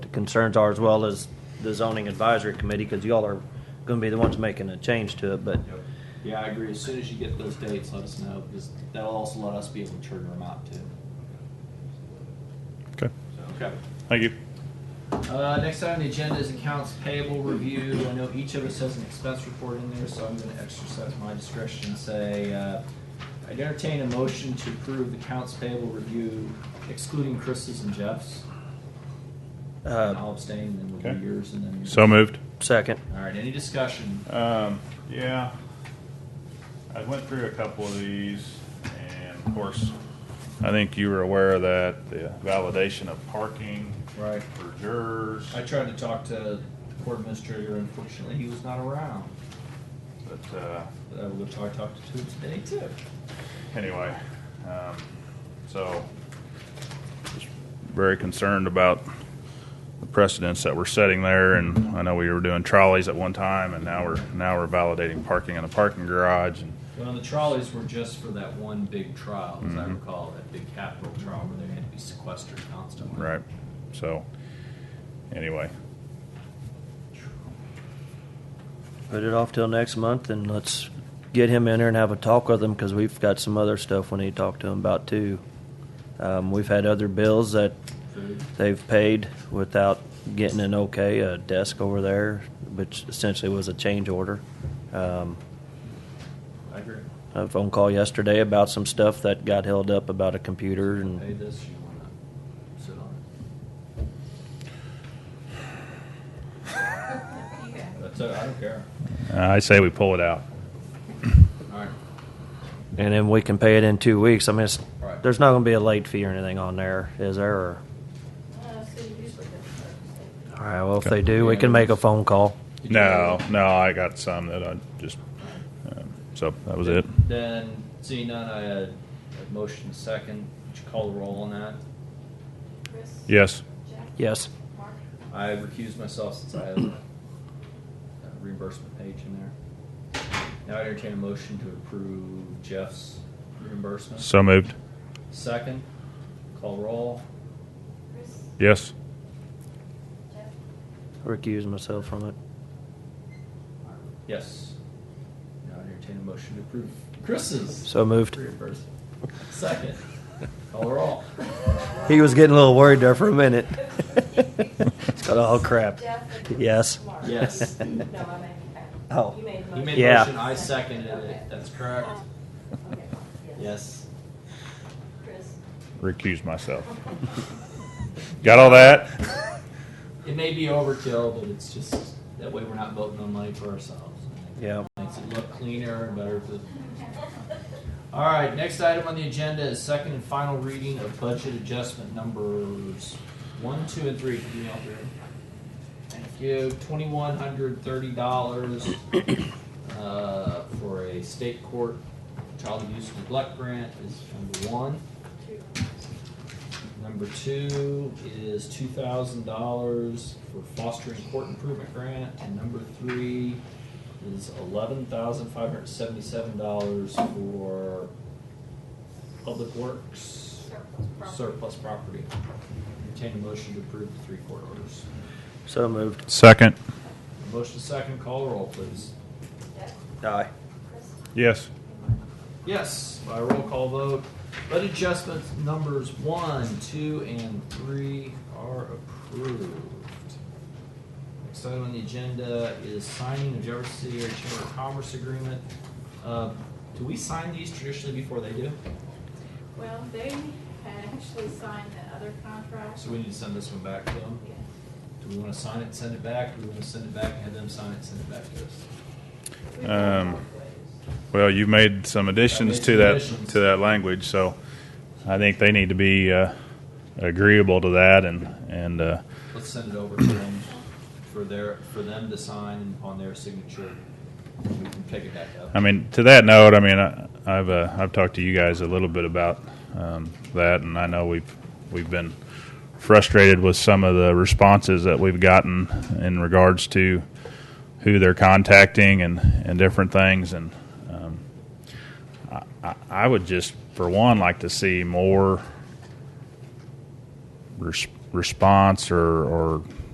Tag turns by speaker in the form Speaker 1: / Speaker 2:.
Speaker 1: concerns are, as well as the zoning advisory committee, because y'all are gonna be the ones making a change to it, but,
Speaker 2: Yeah, I agree. As soon as you get those dates, let us know because that'll also let us be able to trigger them out too.
Speaker 3: Okay,
Speaker 2: Okay.
Speaker 3: thank you.
Speaker 2: Uh, next item on the agenda is accounts payable review. I know each of us has an expense report in there, so I'm going to exercise my discretion and say uh, I'd entertain a motion to approve the accounts payable review, excluding Chris's and Jeff's. And
Speaker 1: uh,
Speaker 2: I'll abstain, and then we'll
Speaker 3: Okay.
Speaker 2: do yours, and then yours.
Speaker 3: So moved.
Speaker 1: second.
Speaker 2: All right. Any discussion?
Speaker 3: Um, yeah. I went through a couple of these and of course, I think you were aware of that, the validation of parking
Speaker 2: Right.
Speaker 3: for jurors.
Speaker 2: I tried to talk to the court administrator. Unfortunately, he was not around.
Speaker 3: But, uh,
Speaker 2: But I will go talk, talk to him today too.
Speaker 3: anyway, um, so just very concerned about the precedents that we're setting there. And I know we were doing trolleys at one time and now we're, now we're validating parking in a parking garage and
Speaker 2: Well, the trolleys were just for that one big trial, as I
Speaker 3: Mm-hmm.
Speaker 2: recall, that big capital trial where they had to be sequestered constantly.
Speaker 3: Right. So, anyway,
Speaker 1: Put it off till next month and let's get him in there and have a talk with him because we've got some other stuff we need to talk to him about too. Um, we've had other bills that
Speaker 2: Food.
Speaker 1: they've paid without getting an okay, a desk over there, which essentially was a change order. Um,
Speaker 2: I agree.
Speaker 1: a phone call yesterday about some stuff that got held up about a computer
Speaker 2: Pay
Speaker 3: Mm.
Speaker 1: and
Speaker 2: this, you wanna sit on it. That's it, I don't care.
Speaker 3: uh, I say we pull it out.
Speaker 2: Alright,
Speaker 1: and then we can pay it in two weeks. I mean, it's,
Speaker 2: Right.
Speaker 1: there's not going to be a late fee or anything on there, is there? Or,
Speaker 4: Uh, so you usually get the first.
Speaker 1: all right. Well, if they do, we can make a phone call.
Speaker 3: No, no, I got some that I just. Um, so that was it.
Speaker 2: then, seeing none, I had a motion second, would you call the roll on that?
Speaker 4: Chris?
Speaker 3: Yes.
Speaker 4: Jack?
Speaker 1: Yes.
Speaker 4: Mark?
Speaker 2: I recused myself since I have a a reimbursement page in there. Now I entertain a motion to approve Jeff's reimbursement.
Speaker 3: So moved.
Speaker 2: Second, call roll.
Speaker 4: Chris?
Speaker 3: Yes.
Speaker 4: Jeff?
Speaker 1: Recuse myself from it.
Speaker 2: Yes. Now I entertain a motion to approve Chris's
Speaker 1: So moved.
Speaker 2: reimbursement. Second, call roll.
Speaker 1: He was getting a little worried there for a minute. it's got all crap.
Speaker 4: Jeff? and
Speaker 1: Yes.
Speaker 4: Mark.
Speaker 2: Yes.
Speaker 4: No, I made that.
Speaker 1: Oh.
Speaker 4: You made the
Speaker 2: You
Speaker 4: motion.
Speaker 2: made
Speaker 1: Yeah.
Speaker 2: a motion, I seconded it, that's correct.
Speaker 4: Okay,
Speaker 2: Yes.
Speaker 4: Chris?
Speaker 3: Recuse myself. Got all that?
Speaker 2: It may be overkill, but it's just, that way we're not voting on money for ourselves. I think
Speaker 1: Yeah.
Speaker 2: Makes it look cleaner and better for the. All right, next item on the agenda is second and final reading of budget adjustment numbers one, two, and three. Can you all hear? Thank you. Twenty-one hundred thirty dollars uh, for a state court child abuse neglect grant is number one. Number two is two thousand dollars for fostering court improvement grant, and number three is eleven thousand five hundred seventy-seven dollars for public works surplus property. Entertain a motion to approve the three court orders.
Speaker 1: So moved.
Speaker 3: Second.
Speaker 2: Motion second, call roll, please.
Speaker 4: Jeff?
Speaker 1: Aye.
Speaker 4: Chris?
Speaker 3: Yes.
Speaker 2: Yes, by roll call vote, but adjustments numbers one, two, and three are approved. Next item on the agenda is signing of Jefferson City Area Chamber of Commerce Agreement. Uh, Do we sign these traditionally before they do?
Speaker 4: Well, they had actually signed the other contract.
Speaker 2: So we need to send this one back to them?
Speaker 4: Yeah.
Speaker 2: Do we want to sign it, and send it back? Do we want to send it back and have them sign it, and send it back to us?
Speaker 4: We've done
Speaker 3: Um,
Speaker 4: both ways.
Speaker 3: Well, you've made some additions
Speaker 2: made
Speaker 3: to
Speaker 2: some
Speaker 3: that
Speaker 2: additions.
Speaker 3: to that language, so I think they need to be uh, agreeable to that and and uh,
Speaker 2: Let's send it over to them for their, for them to sign upon their signature. We can pick it back up.
Speaker 3: I mean, to that note, I mean, I, I've uh, I've talked to you guys a little bit about um, that, and I know we've we've been frustrated with some of the responses that we've gotten in regards to who they're contacting and and different things, and um, I, I- I would just, for one, like to see more res- response or or